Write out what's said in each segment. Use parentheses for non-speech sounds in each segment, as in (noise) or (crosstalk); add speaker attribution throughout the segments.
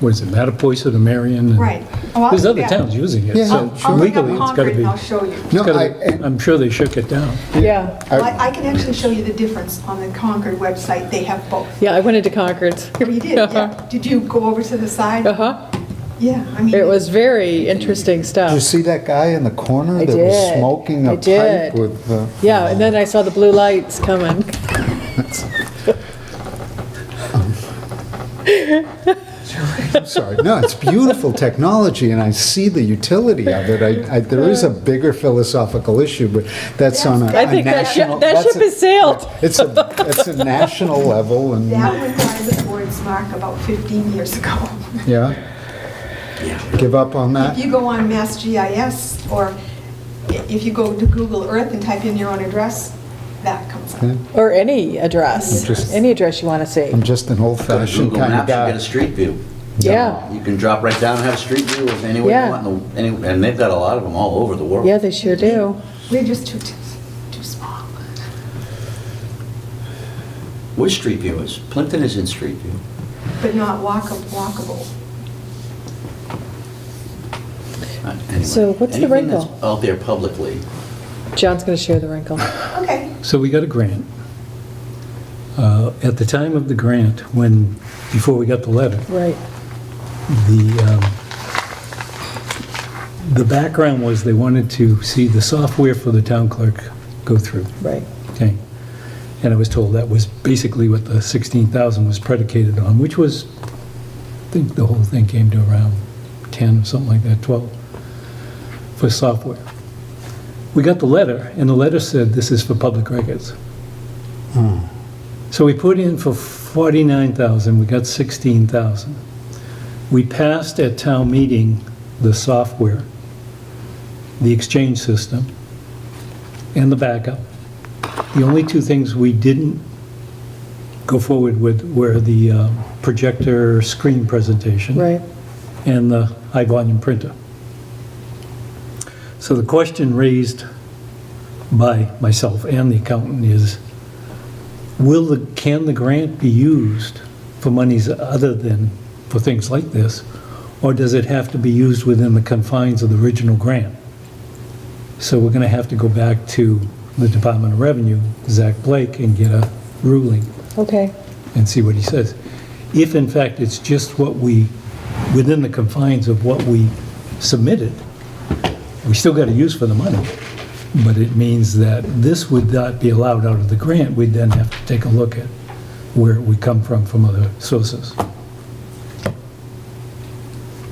Speaker 1: what is it, Mattapoisett or Marion? and-
Speaker 2: Right. Oh, I'll-
Speaker 1: There's other
Speaker 2: yeah. Oh,
Speaker 1: towns using it,
Speaker 3: Yeah,
Speaker 1: so
Speaker 2: I'll bring up
Speaker 1: legally, it's got to
Speaker 2: Concord
Speaker 1: be,
Speaker 2: and I'll show you.
Speaker 1: it's
Speaker 3: No,
Speaker 1: gotta
Speaker 3: I-
Speaker 1: be-
Speaker 3: and-
Speaker 1: I'm sure they shook it down.
Speaker 4: Yeah,
Speaker 2: Well,
Speaker 3: I-
Speaker 2: I I can actually show you the difference on the Concord website, they have both.
Speaker 4: yeah, I went into Concord.
Speaker 2: Oh, You did, yeah. Did you go over to the side?
Speaker 4: Uh-huh.
Speaker 2: Yeah, I mean.
Speaker 4: It was very interesting
Speaker 3: Did you
Speaker 4: stuff.
Speaker 3: see that guy in the corner
Speaker 4: I
Speaker 3: that was
Speaker 4: did.
Speaker 3: smoking
Speaker 4: I
Speaker 3: a pipe
Speaker 4: did.
Speaker 3: with, uh,
Speaker 4: Yeah, and then I saw the blue lights coming.
Speaker 3: I'm sorry, no, it's beautiful technology, and I see the utility of it. I- I- There is a bigger philosophical issue, but that's on a
Speaker 4: I
Speaker 3: a
Speaker 4: think that ship-
Speaker 3: national...
Speaker 4: that
Speaker 3: that's
Speaker 4: ship
Speaker 3: a-
Speaker 4: has sailed.
Speaker 3: It's a, it's a national level, and,
Speaker 2: That was Riley Ford's mark about 15 years ago. (laughs)
Speaker 3: yeah? Give up on
Speaker 2: If
Speaker 3: that?
Speaker 2: you go on Mass GIS, or i- if you go to Google Earth and type in your own address, that comes up.
Speaker 3: Yeah.
Speaker 4: Or any address, any address you want to see.
Speaker 3: I'm just an
Speaker 5: Go to
Speaker 3: old-fashioned
Speaker 5: Google
Speaker 3: kind of
Speaker 5: Maps, you get a
Speaker 3: guy.
Speaker 5: street view.
Speaker 4: Yeah,
Speaker 5: You can drop right down and have a street view of anywhere
Speaker 4: Yeah.
Speaker 5: you want, in the- any- and they've got a lot of them all over the world.
Speaker 4: yeah, they sure do.
Speaker 2: We're just too, too too small.
Speaker 5: Which street view is? Plimpton is in street view.
Speaker 2: but not walkable, walkable.
Speaker 5: Uh, anyway,
Speaker 4: So what's the
Speaker 5: anything that's
Speaker 4: wrinkle?
Speaker 5: Out there publicly.
Speaker 4: John's going to share the wrinkle.
Speaker 2: Okay,
Speaker 1: So we got a grant. Uh, At the time of the grant, when, before we got the letter,
Speaker 4: Right.
Speaker 1: the, um, the background was they wanted to see the software for the town clerk go through.
Speaker 4: Right.
Speaker 1: Okay. And I was told that was basically what the 16,000 was predicated on, which was, I think the whole thing came to around 10, something like that, 12, for software. We got the letter, and the letter said this is for public records. So we put in for 49,000, we got 16,000. We passed at town meeting the software, the exchange system, and the backup. The only two things we didn't go forward with were the uh, projector screen presentation.
Speaker 4: Right.
Speaker 1: And the high-volume printer. So the question raised by myself and the accountant is, will the, can the grant be used for monies other than for things like this? Or does it have to be used within the confines of the original grant? So we're going to have to go back to the Department of Revenue, Zach Blake, and get a ruling
Speaker 4: Okay.
Speaker 1: and see what he says. If in fact it's just what we, within the confines of what we submitted, we still got to use for the money, but it means that this would not be allowed out of the grant, we'd then have to take a look at where we come from, from other sources.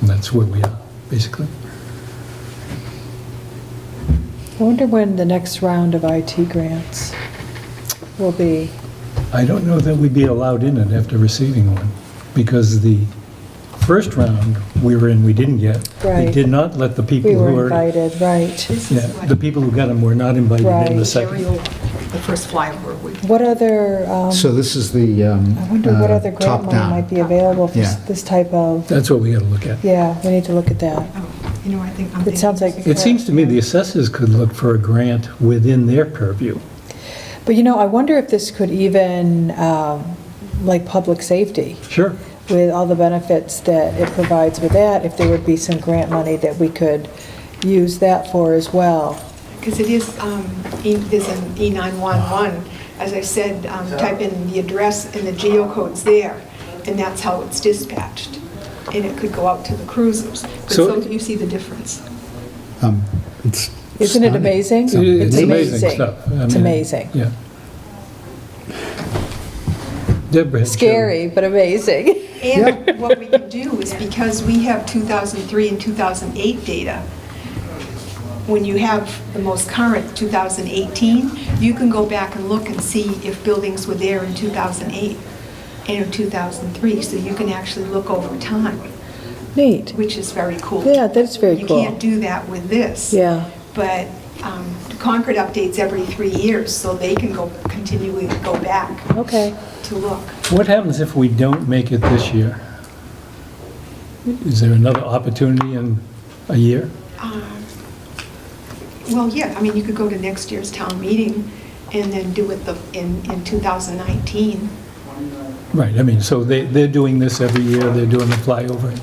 Speaker 1: And that's where we are, basically.
Speaker 4: I wonder when the next round of IT grants will be.
Speaker 1: I don't know that we'd be allowed in it after receiving one, because the first round we were in, we didn't get. They
Speaker 4: Right.
Speaker 1: did not let the people
Speaker 4: We
Speaker 1: who were...
Speaker 4: were invited, right.
Speaker 2: this
Speaker 1: Yeah,
Speaker 2: is what
Speaker 1: the people who got them were not invited in the
Speaker 4: Right.
Speaker 1: second.
Speaker 2: aerial, the first flyover we
Speaker 4: What other, um,
Speaker 3: So this is the um,
Speaker 4: I wonder what
Speaker 3: uh,
Speaker 4: other grant money
Speaker 3: top-down.
Speaker 4: might be available for s-
Speaker 3: Yeah.
Speaker 4: this type of,
Speaker 1: That's what we gotta look at.
Speaker 4: yeah, we need to look at that.
Speaker 2: Oh, You know, I think I'm
Speaker 4: It sounds
Speaker 2: thinking-
Speaker 4: like-
Speaker 1: It seems to me the assessors could look for a grant within their purview.
Speaker 4: But you know, I wonder if this could even, um, like, public safety,
Speaker 1: Sure.
Speaker 4: with all the benefits that it provides with that, if there would be some grant money that we could use that for as well.
Speaker 2: Because it is, um, E- there's an E911, as I said, um, type in the address and the geocode's there, and that's how it's dispatched. And it could go out to the cruisers. But
Speaker 1: So-
Speaker 2: so you see the difference.
Speaker 3: Um, it's
Speaker 4: Isn't it
Speaker 3: stunning.
Speaker 4: amazing?
Speaker 1: It's amazing stuff. I
Speaker 4: It's
Speaker 1: mean,
Speaker 4: amazing.
Speaker 1: Yeah. Deborah. had shown-
Speaker 4: Scary, but amazing. (laughs)
Speaker 2: And what we could do is, because we have 2003 and 2008 data, when you have the most current 2018, you can go back and look and see if buildings were there in 2008 and in 2003, so you can actually look over time,
Speaker 4: Neat.
Speaker 2: which is very cool.
Speaker 4: Yeah, that's very
Speaker 2: You
Speaker 4: cool.
Speaker 2: can't do that with this.
Speaker 4: Yeah.
Speaker 2: But um, Concord updates every three years, so they can go, continually go back
Speaker 4: Okay.
Speaker 2: to look.
Speaker 1: What happens if we don't make it this year? Is there another opportunity in a year?
Speaker 2: Um, Well, yeah, I mean, you could go to next year's town meeting and then do it the, in, in 2019.
Speaker 1: Right, I mean, so they, they're doing this every year, they're doing the flyover.